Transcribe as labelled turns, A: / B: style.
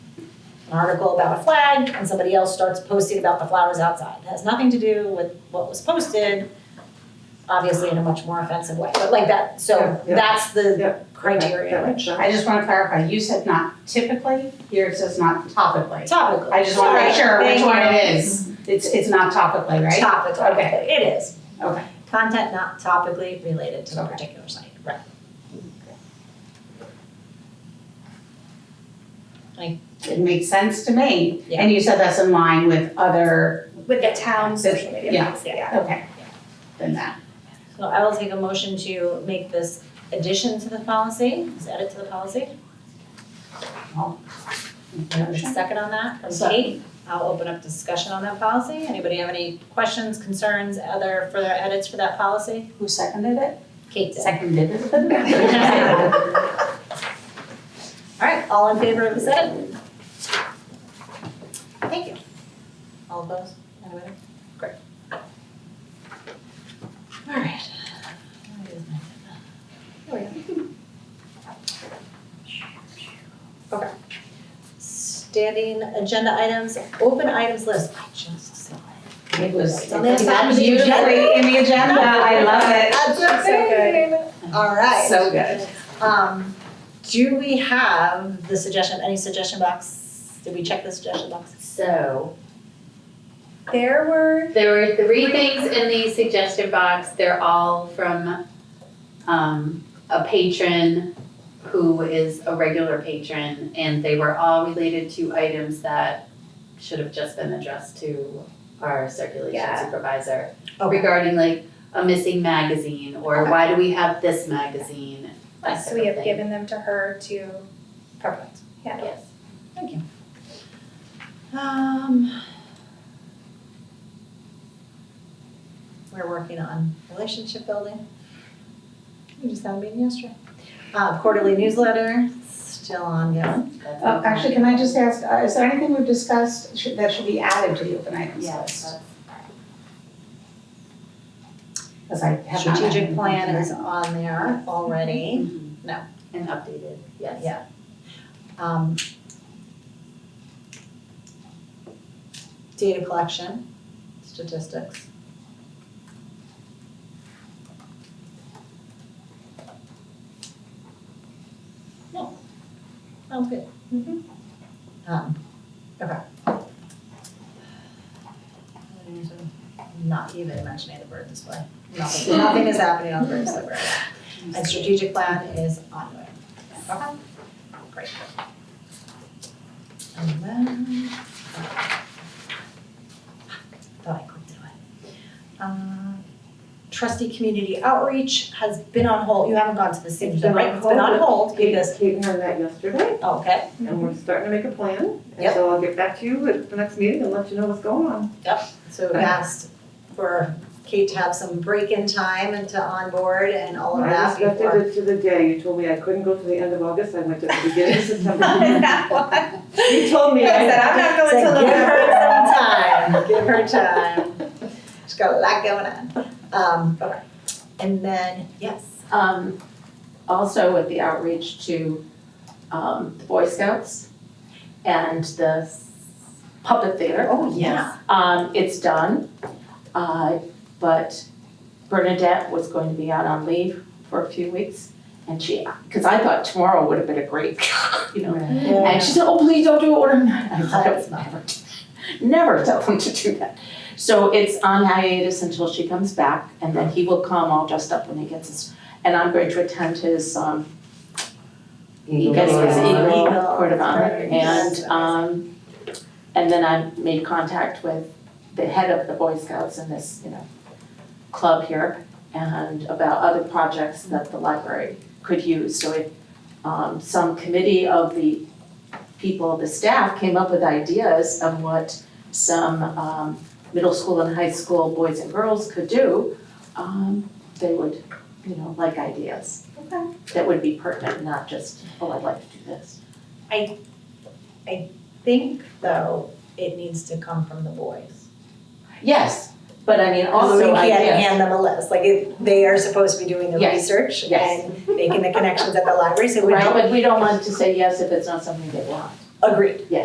A: an article about a flag and somebody else starts posting about the flowers outside. It has nothing to do with what was posted, obviously in a much more offensive way, but like that,
B: Yeah,
A: so
B: yeah.
A: that's
B: Yeah.
A: the
B: That
A: criteria.
B: makes sense.
C: I just wanna clarify, you said not typically, yours says not topically.
A: Topical.
C: I just wanna make sure
A: Sorry,
C: which
A: thank
C: one
A: you.
C: it is. It's, it's not topically, right?
A: Topically,
C: Okay.
A: it is.
C: Okay.
A: Content not topically related to the
C: Okay.
A: particular site, right.
C: It makes sense to me.
A: Yeah.
C: And you said that's in line with other,
D: with the town social media
C: Yeah.
D: policy, yeah.
C: okay, than that.
A: So I will take a motion to make this addition to the policy, just add it to the policy. Second on that, from
B: Second.
A: Kate. I'll open up discussion on that policy. Anybody have any questions, concerns, other further edits for that policy?
C: Who seconded it?
A: Kate did.
C: Seconded it.
A: All right, all in favor of this edit? Thank you. All opposed? Anybody? Great. All right. There we go. Okay. Standing agenda items, open items list. I just saw it.
C: It was,
A: Don't they have that in
C: it's
A: the
C: usually
A: agenda?
C: in the agenda, I love it.
A: All right.
C: So good.
A: Um, do we have the suggestion, any suggestion box? Did we check the suggestion box?
E: So,
D: There were,
E: there were three things in the suggestion box, they're all from um a patron who is a regular patron, and they were all related to items that should have just been addressed to our circulation
D: Yeah.
E: supervisor
A: Okay.
E: regarding like a missing magazine, or
D: Okay.
E: why do we have this magazine, that
D: so we
E: type of
D: have
E: thing.
D: given them to her to
A: Perfect.
D: handle.
E: Yes.
A: Um. We're working on relationship building. We just had a meeting yesterday. Uh, quarterly newsletter, still ongoing.
E: That's
C: Oh,
E: all.
C: actually, can I just ask, uh, is there anything we've discussed should- that should be added to the open items
E: Yes,
C: list?
E: that's-
C: Because I have not. added
A: Strategic
C: anything
A: plan
C: to
A: is
C: that.
A: on there already. No.
E: And updated, yes.
A: Yeah. Um. Data collection, statistics. No, sounds good.
D: Mhm.
A: Um, okay. Not even mentioning the bird display, nothing, nothing is happening on the bird display right now. And strategic plan is ongoing. Okay, great. And then. Thought oh, I clicked it away. Uh, Trustee community outreach has been on hold, you haven't gone to the city
B: It's
A: yet,
B: been
A: right?
B: on
A: It's been on hold
B: Kate,
A: because, oh,
B: Kate and I met yesterday,
A: okay,
B: and
D: Mm-hmm.
B: we're starting to make a plan, and
A: Yep.
B: so I'll get back to you at the next meeting and let you know what's going on.
A: so we asked for Kate to have some break-in time and to onboard and all of
B: I
A: that before.
B: respected it to the day, you told me I couldn't go to the end of August, I went to the beginning of September.
D: That one.
B: You told me I
D: I said,
B: had.
D: I'm not going
A: So
D: till
A: give
D: November.
A: her some time, give her time. She's got a lot going on. Um, okay. And then, yes,
F: Um, also with the outreach to, um, the Boy Scouts and the puppet theater.
A: oh, yeah.
F: Um, it's done, uh, but Bernadette was going to be out on leave for a few weeks. And she, cause I thought tomorrow would have been a great, you know, and she said, oh, please don't do it, or not. I thought, "Don't, never, never tell them to do that. So it's on hiatus until she comes back, and then he will come all dressed up when he gets his, and I'm going to attend his, um, he gets his
A: Eagle.
F: Eagle Court of Honor.
A: Eagle.
F: And, um, and then I made contact with the head of the Boy Scouts in this, you know, club here, and about other projects that the library could use, so if, um, some committee of the people, the staff came up with ideas of what some um middle school and high school boys and girls could do, um they would, you know, like ideas.
D: Okay.
F: That would be pertinent, not just, oh, I'd like to do this.
A: Think though, it needs to come from the boys.
F: Yes, but I mean
A: we
F: also ideas.
A: can't hand them a list, like it, they are supposed to be doing the
F: Yes.
A: research
F: Yes.
A: and making the connections at the library, so we
F: Right,
A: don't
F: but we don't want to say yes if it's not something they want.
A: agree.